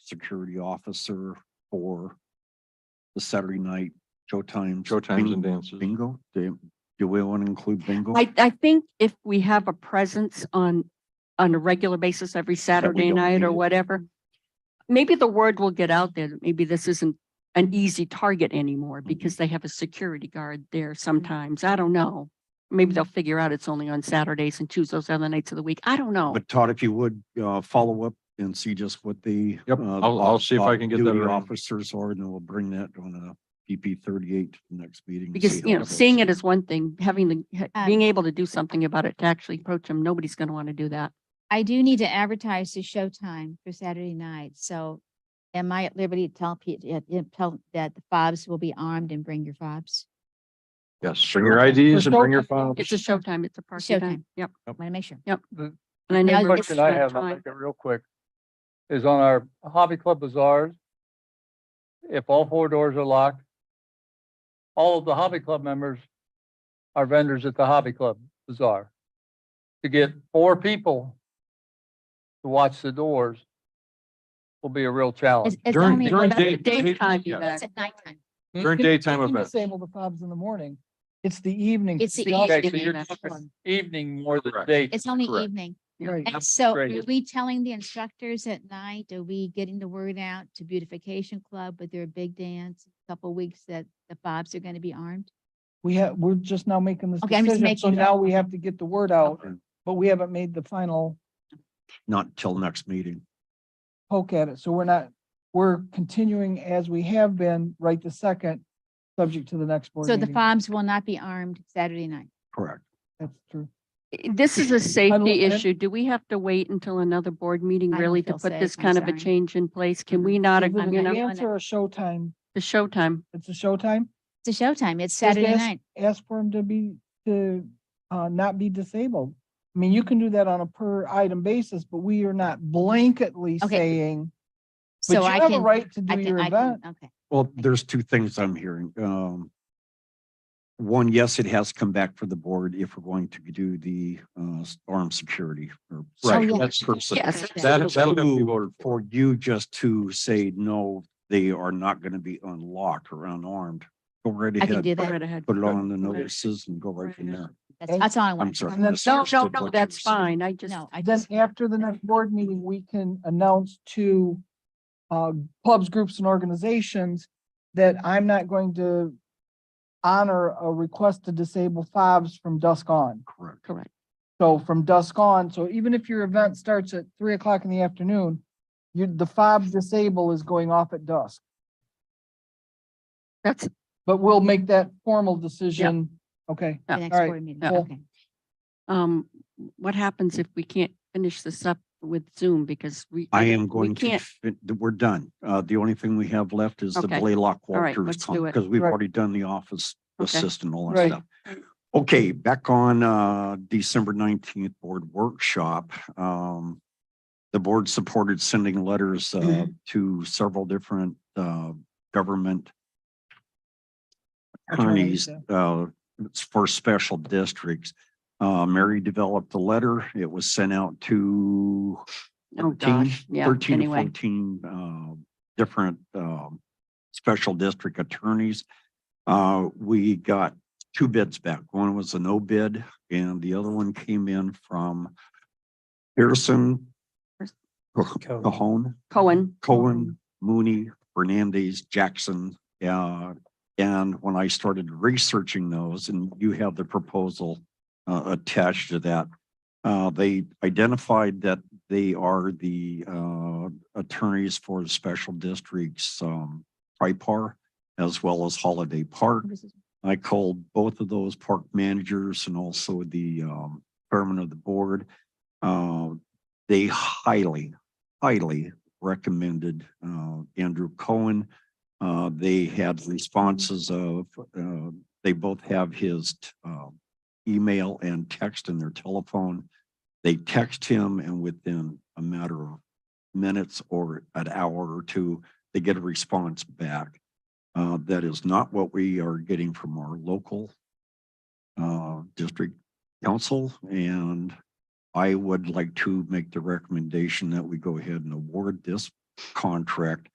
security officer for the Saturday night showtimes. Show times and Bing- dances. Bingo, do, do we want to include bingo? I, I think if we have a presence on, on a regular basis every Saturday don't night need or it. whatever, maybe the word will get out there. that Maybe this isn't an easy target Mm-hmm. anymore because they have a security guard there sometimes. I don't know. Maybe they'll figure out it's only on Saturdays and choose those other nights of the week. I don't know. But Todd, if you would, uh, follow up and see just what the. Yep, uh, I'll- I'll see if I can get that off-duty arranged. Officers are, and then we'll bring that on a PP thirty-eight to the next meeting. and Because, see you how know, goes. seeing it is one thing, having the, ha- Um, being able to do something about it, to actually approach them, nobody's going to want to do that. I do need to advertise the showtime for Saturday night, so am I at liberty to tell Pete, tell that the fobs will be armed and bring your fobs? Yes, bring your IDs and bring your files. It's a showtime. It's a party time. Showtime. Yep. Want to make sure. And I Now, never. it's Question I spent have, I'll time- make it real quick, is on our hobby club bazaars. If all four doors are locked, all of the hobby club members are vendors at the hobby club bazaar. To get four people to watch the doors will be a real challenge. It's- it's During- only- during but day- Daytime yeah. event. It's at nighttime. During daytime You events. say, well, the fob's in the morning. It's the evening. It's the fobs. Okay, so evening you're event. talking evening more than Correct. day. It's only Correct. evening. Right. And so great. are we telling the instructors at night? Are we getting the word out to Beautification Club with their big dance? a Couple weeks that the fobs are going to be armed? We have, we're just now making this Okay, I'm just decision, so making- now we have to get the word out, And but we haven't made the final Not till next meeting. poke at it, so we're not, we're continuing as we have been right the second, subject to the next board So the meeting. fobs will not be armed Saturday night. Correct. That's true. This is a safety and- issue. Do we have to wait until another board meeting I don't really to feel put safe. this I'm kind of a sorry. Mm-hmm. change in place? Can we not, Is it you a know, dance or a showtime? the showtime? It's a showtime? It's a showtime. It's Just Saturday ask- night. Ask for them to be, to, uh, not be disabled. I mean, you can do that on a per item basis, but we are not blanketly Okay. saying, but So you I have a can, right to I do can, your I can, event. okay. Well, there's two things I'm hearing. Um, one, yes, it has come back for the board if we're going to do the, uh, armed security or. Right, yeah. that's person. Oh, Yes. That, that'll have to be Two, voted for. For you just to say, no, they are not going to be unlocked or unarmed. Go right I can ahead, do Go right that. ahead. put it on the Okay. notices and go right from Right. there. That's, that's all I I'm want. sorry. And then- Mr. No, no, Stewart, no, what you were that's saying. fine. I just, No, I Then just, after the next board meeting, we can announce to uh, clubs, groups and organizations that I'm not going to honor a request to disable fobs from dusk on. Correct. correct. So from dusk on, so even if your event starts at three o'clock in the afternoon, you, the fob disable is going off at dusk. That's, But we'll make that formal decision. Okay, the Yeah, next alright, board meeting, yeah. okay. um, what happens if we can't finish this up with Zoom because we. I am we going to, can't- fin- th- we're done. Uh, the only thing we have left is the Okay. Blaylock All right, Walters let's do it. because we've Right. already done the office Okay. assistant, all that Right. stuff. Okay, back on, uh, December nineteenth board workshop, um, the board supported sending letters, uh, Mm-hmm. to several different, uh, government Attorneys, attorneys, uh, it's for special districts. Uh, Mary developed the letter. It was sent out to Oh, 13, gosh. Yeah, 13 to anyway. 14 uh, different um, special district attorneys. Uh, We got two bids back. One was a no bid and the other one came in from Pearson, Cajon, Cohen, Cohen, Mooney, Fernandez, Jackson. uh, And when I started researching those, and you have the proposal uh, attached to that, uh, they identified that they are the uh, attorneys for the special districts, um, Tripar, as well as Holiday Park. I called both of those park managers and also the um, chairman of the board. Uh, They highly, highly recommended uh, Andrew Cohen. Uh, They had responses of, uh, they both have his uh, email and text in their telephone. They text him and within a matter of minutes or an hour or two, they get a response back. Uh, That is not what we are getting from our local uh, district council. And I would like to make the recommendation that we go ahead and award this contract.